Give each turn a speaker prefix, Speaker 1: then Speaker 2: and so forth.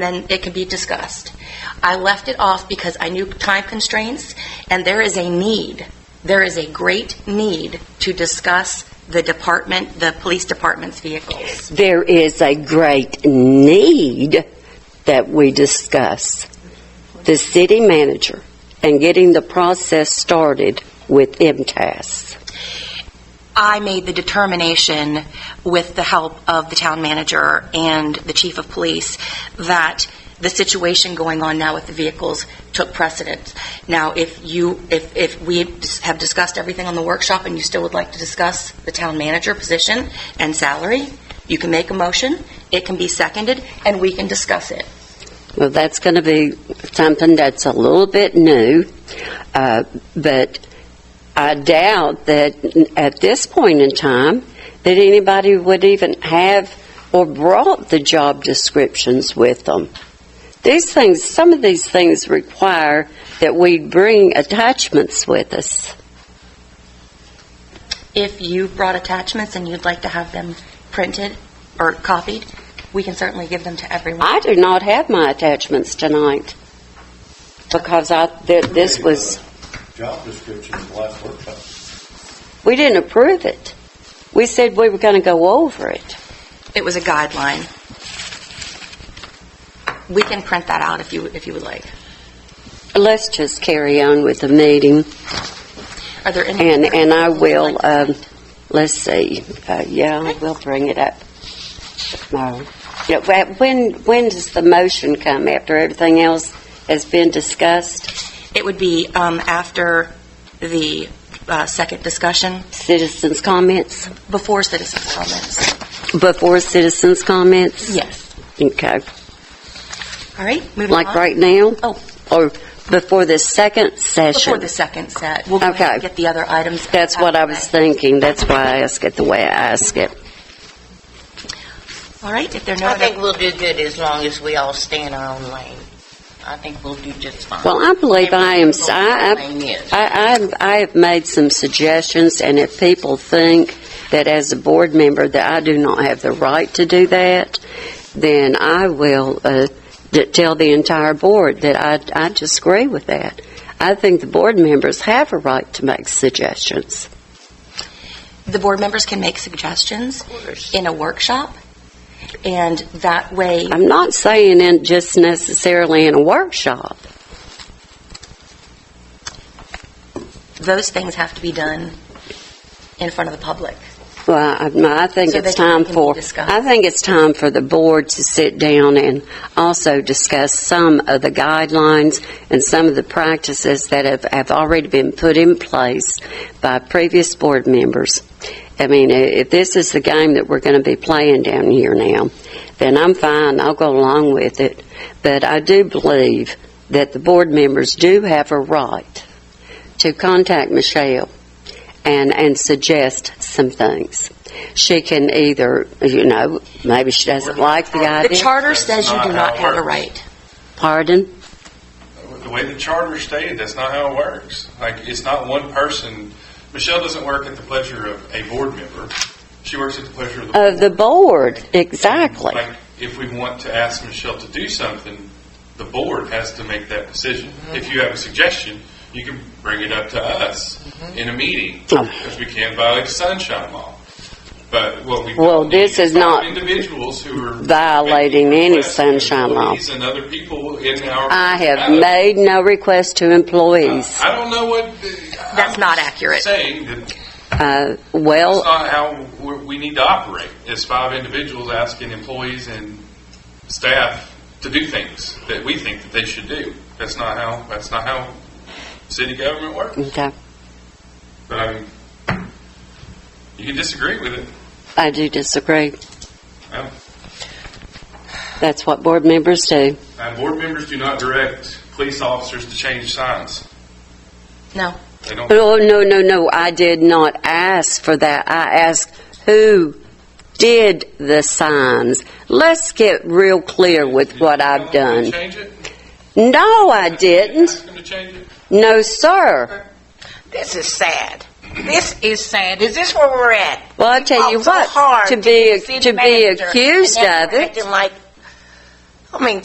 Speaker 1: then it can be discussed. I left it off because I knew time constraints, and there is a need, there is a great need to discuss the department, the police department's vehicles.
Speaker 2: There is a great need that we discuss. The city manager and getting the process started with MTS.
Speaker 1: I made the determination with the help of the town manager and the chief of police that the situation going on now with the vehicles took precedence. Now, if you, if, if we have discussed everything on the workshop and you still would like to discuss the town manager position and salary, you can make a motion, it can be seconded, and we can discuss it.
Speaker 2: Well, that's going to be something that's a little bit new, uh, but I doubt that at this point in time, that anybody would even have or brought the job descriptions with them. These things, some of these things require that we bring attachments with us.
Speaker 1: If you brought attachments and you'd like to have them printed or copied, we can certainly give them to everyone.
Speaker 2: I do not have my attachments tonight because I, th- this was.
Speaker 3: job description of the last workshop.
Speaker 2: We didn't approve it. We said we were going to go over it.
Speaker 1: It was a guideline. We can print that out if you, if you would like.
Speaker 2: Let's just carry on with the meeting,
Speaker 1: Are there any?
Speaker 2: and, and I will, um, let's see, uh, yeah, we'll bring it up. No. Yeah, wha- when, when does the motion come? After everything else has been discussed?
Speaker 1: It would be um, after the uh, second discussion,
Speaker 2: Citizens' comments?
Speaker 1: before citizens' comments.
Speaker 2: Before citizens' comments?
Speaker 1: Yes.
Speaker 2: Okay.
Speaker 1: All right, moving on.
Speaker 2: Like right now?
Speaker 1: Oh.
Speaker 2: Or before the second session?
Speaker 1: Before the second set. We'll go ahead and
Speaker 2: Okay.
Speaker 1: get the other items.
Speaker 2: That's what I was
Speaker 1: out of
Speaker 2: thinking. That's why I asked it the way I asked it.
Speaker 1: the way. All right, if there are no
Speaker 4: I think
Speaker 1: other,
Speaker 4: we'll do good as long as we all stay in our own lane. I think we'll do just fine.
Speaker 2: Well, I believe I am, I,
Speaker 4: Everybody's lane is.
Speaker 2: I- I, I'm- I have made some suggestions, and if people think that as a board member that I do not have the right to do that, then I will uh, d- tell the entire board that I, I disagree with that. I think the board members have a right to make suggestions.
Speaker 1: the board members can make suggestions in a workshop, and that way,
Speaker 2: I'm not saying in, just necessarily in a workshop.
Speaker 1: those things have to be done in front of the public.
Speaker 2: Well, I, no, I think
Speaker 1: So
Speaker 2: it's
Speaker 1: they can-
Speaker 2: time
Speaker 1: can be
Speaker 2: for,
Speaker 1: discussed.
Speaker 2: I think it's time for the board to sit down and also discuss some of the guidelines and some of the practices that have, have already been put in place by previous board members. I mean, i- if this is the game that we're going to be playing down here now, then I'm fine, I'll go along with it. But I do believe that the board members do have a right to contact Michelle and, and suggest some things. She can either, you know, maybe she doesn't like the
Speaker 1: The
Speaker 2: idea.
Speaker 1: charter says you do not have a right.
Speaker 2: Pardon?
Speaker 5: The way the charter stated, that's not how it works. Like, it's not one person. Michelle doesn't work at the pleasure of a board member. She works at the pleasure of the.
Speaker 2: Of the board, exactly.
Speaker 5: Like, if we want to ask Michelle to do something, the board has to make that decision.
Speaker 1: Mm-hmm.
Speaker 5: If you have a suggestion, you can bring it up to us
Speaker 1: Mm-hmm.
Speaker 5: in a meeting,
Speaker 2: Oh.
Speaker 5: because we can't violate the sunshine law. But what we.
Speaker 2: Well,
Speaker 5: don't need
Speaker 2: this is not
Speaker 5: Individuals who are.
Speaker 2: violating any
Speaker 5: requests to
Speaker 2: sunshine law.
Speaker 5: employees And other people in our.
Speaker 2: I have
Speaker 5: Adam,
Speaker 2: made no request to employees.
Speaker 5: I don't know what.
Speaker 1: That's not accurate.
Speaker 5: Saying that that's
Speaker 2: Uh, well,
Speaker 5: not how we- we need to operate, is five individuals asking employees and staff to do things that we think that they should do. That's not how, that's not how city government works.
Speaker 2: okay,
Speaker 5: But I mean, you can disagree with it.
Speaker 2: I do disagree.
Speaker 5: Um,
Speaker 2: That's what board members do.
Speaker 5: uh, board members do not direct police officers to change signs.
Speaker 1: No.
Speaker 5: They don't.
Speaker 2: No, Oh, no, no, no, I did not ask for that. I asked who did the signs. Let's get real clear with what I've done.
Speaker 5: Change it?
Speaker 2: No, I didn't.
Speaker 5: Ask them to change it?
Speaker 2: No, sir.
Speaker 4: This is sad. This is sad. Is this where we're at?
Speaker 2: Well, I tell you
Speaker 4: Fought
Speaker 2: what,
Speaker 4: Oh, so hard
Speaker 2: to be
Speaker 4: the city
Speaker 2: to be
Speaker 4: manager,
Speaker 2: accused
Speaker 4: and then
Speaker 2: of
Speaker 4: we're
Speaker 2: it.
Speaker 4: acting like, I mean,